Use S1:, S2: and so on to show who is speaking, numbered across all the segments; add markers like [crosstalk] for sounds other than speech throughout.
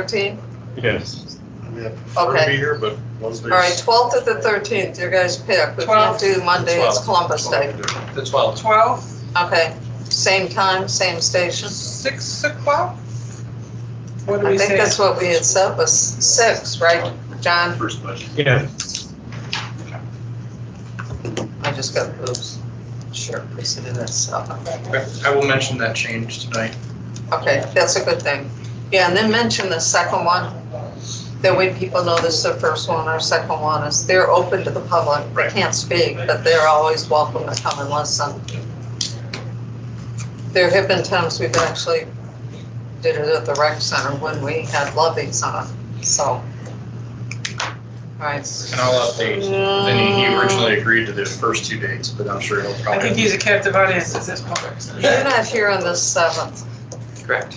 S1: 13th?
S2: Yes.
S3: I mean, I prefer to
S1: Okay.
S3: be here, but Wednesday's.
S1: All right, 12th to the 13th, you guys pick. We can't do Monday, it's Columbus Day.
S4: The twelfth.
S5: 12,
S1: Okay, same time, same station.
S5: 6 o'clock? What do
S1: I
S5: we
S1: think
S5: say?
S1: that's what we had said was six, right, John?
S3: First budget.
S2: Yeah.
S1: I just got oops. Sure, we said it as seven.
S4: I will mention that change tonight.
S1: Okay, that's a good thing. Yeah, and then mention the second one. That way people know this is the first one or second one is, they're open to the public. They
S4: Right.
S1: Can't speak, but they're always welcome to come and listen. There have been times we've actually did it at the rec center when we had loveys on, so. All right.
S4: And I'll update. Then he- he originally agreed to the first two dates, but I'm sure he'll
S5: I
S4: probably.
S5: think he's a captive audience at this point.
S1: You're not here on the seventh.
S4: Correct.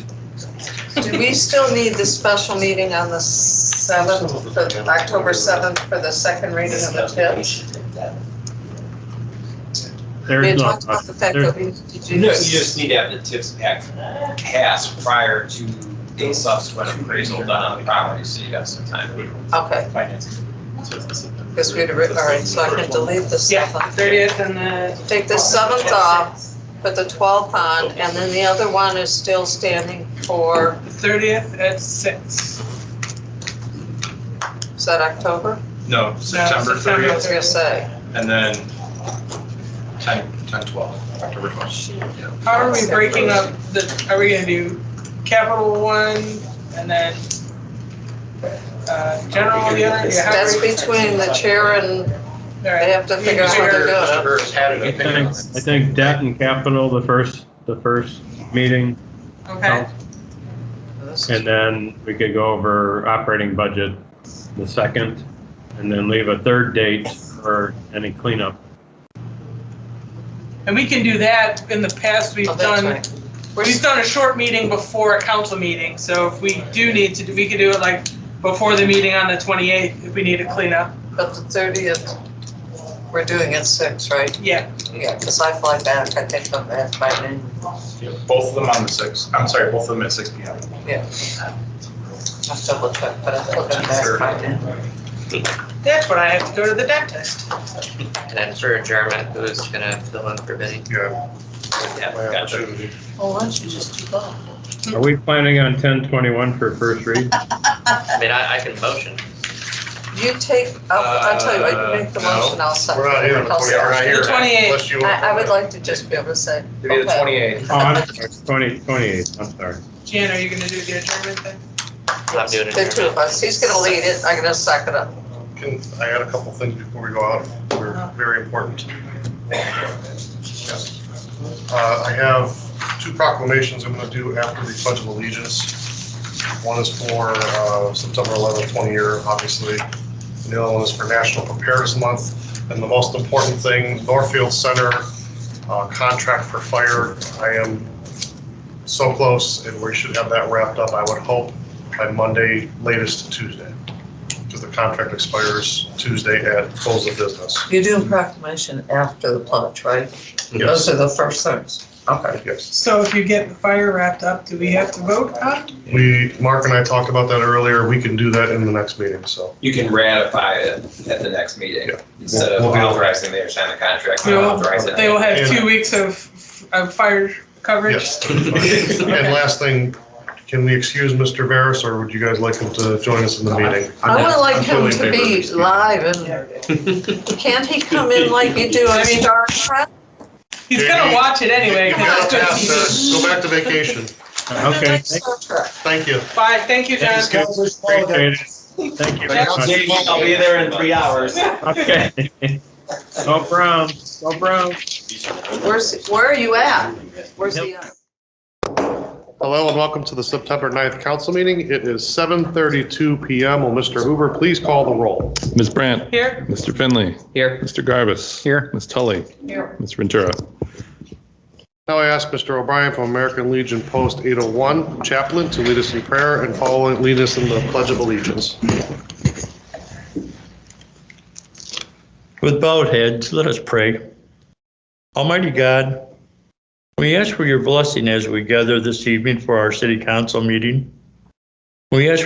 S1: Do we still need the special meeting on the seventh, October seventh for the second reading of the TIPS? We had
S2: There's
S1: talked
S2: no,
S1: about the fact
S2: there's-
S1: that we need to do
S6: You know, you just
S1: this.
S6: need to have the TIPS act passed prior to a subsequent appraisal done on the property, so you got some time to
S1: Okay,
S6: finance.
S1: because we'd, writ- all right, so I can delete the
S5: Yeah,
S1: seventh.
S5: 30th and the.
S1: Take the seventh off, put the twelfth on, and then the other one is still standing for,
S5: 30th at 6.
S1: is that October?
S4: No, September
S1: I
S5: September.
S4: thirtieth,
S1: was gonna say,
S4: and then 10, 10, 12, October 12th. Yeah.
S5: How are we breaking up the, are we gonna do capital one and then uh, general the other? Yeah, how are
S1: that's
S5: we-
S1: between the chair and
S5: all
S1: they
S5: right.
S1: have to figure out how to do it.
S4: Whoever has had an
S2: I
S4: opinion
S2: think,
S4: on
S2: I
S4: it.
S2: think debt and capital, the first, the first meeting,
S5: Okay,
S2: and then we could go over operating budget the second, and then leave a third date for any cleanup.
S5: and we can do that, in the past, we've
S1: Oh, that's
S5: done,
S1: right.
S5: we've done a short meeting before a council meeting, so if we do need to, we could do it like before the meeting on the 28th, if we need to clean up.
S1: But the thirtieth, we're doing it six, right?
S5: Yeah,
S1: Yeah, because I fly back, I think I'm back by noon.
S4: Yeah, Both of them on the 6th, I'm sorry, both of them at 6 PM.
S1: I'll double check, but I think I'm back by noon.
S5: that's when I have to go to the dentist.
S7: And then for adjournment, who's gonna fill in for Vinnie?
S3: Yeah,
S7: Yeah,
S3: my
S7: gotcha.
S3: opportunity.
S1: Well, why don't you just do both?
S2: Are we planning on ten twenty-one for first read?
S7: I mean, I, I can motion.
S1: [laughs] You take, I'll, I'll tell you, what, you make the
S4: Uh, no.
S1: motion, I'll second.
S3: We're not here on the
S1: I'll
S3: 20 we're not
S1: second.
S3: here.
S5: 28.
S3: Unless you want
S1: I, I would
S3: to-
S1: like to just be able to say,
S4: Maybe the
S1: Okay.
S4: 28th.
S2: Oh, I'm sorry, twenty, twenty-eight, I'm sorry.
S5: Jan, are you gonna do the adjournment thing?
S7: I'm doing
S1: the two of
S7: adjournment.
S1: us, he's gonna lead it, I'm gonna second it.
S3: Can, I got a couple things before we go out, they're very important. Uh, I have two proclamations I'm gonna do after the Pledge of Allegiance. One is for, uh, September eleventh, twenty year, obviously. And the other one is for National Preparedness Month. And the most important thing, Northfield Center, uh, contract for fire. I am so close and we should have that wrapped up, I would hope, by Monday, latest Tuesday because the contract expires Tuesday at close of business.
S1: You're doing proclamation after the pledge, right?
S3: Yes,
S1: are the first things. Okay.
S3: yes.
S5: So if you get the fire wrapped up, do we have to vote on? it?
S3: We, Mark and I talked about that earlier. We can do that in the next meeting, so.
S6: You can ratify it at the next meeting,
S3: Yeah.
S6: instead of
S3: We'll do it.
S6: authorizing the sign the contract,
S5: No,
S6: authorize it.
S5: They will have two weeks of, of fire coverage? [laughs]
S3: Yes. And last thing, can we excuse Mr. Varis or would you guys like him to join us in the meeting?
S1: I would like him to
S3: I'm totally in favor of
S1: be
S3: excusing.
S1: live and, can't he come in like you do on
S5: I mean-
S1: Star Trek?
S5: He's gonna watch it anyway.
S3: You got a pass, sir. Go back to vacation.
S2: Okay,
S1: Like Star Trek.
S3: Thank you.
S5: Bye, thank you, John.
S3: Thank you.
S2: appreciate it. Thank you very much.
S6: [laughs] I'll be there in three
S5: [laughs]
S6: hours.
S2: Okay. [laughs] Go Brown, go Brown.
S1: Where's, where are you at? Where's he at?
S3: Hello and welcome to the September 9th council meeting. It is 7:32 PM. Will Mr. Hoover please call the roll?
S8: Ms. Brandt,
S5: Here,
S8: Mr. Finley,
S7: Here,
S8: Mr. Garbus. Here. Ms. Tully,
S5: here,
S8: Ms. Ventura.
S3: Now I ask Mr. O'Brien from American Legion Post 801 Chaplain to lead us in prayer and following, lead us in the Pledge of Allegiance.
S9: With bowed heads, let us pray. Almighty God, we ask for your blessing as we gather this evening for our city council meeting. We ask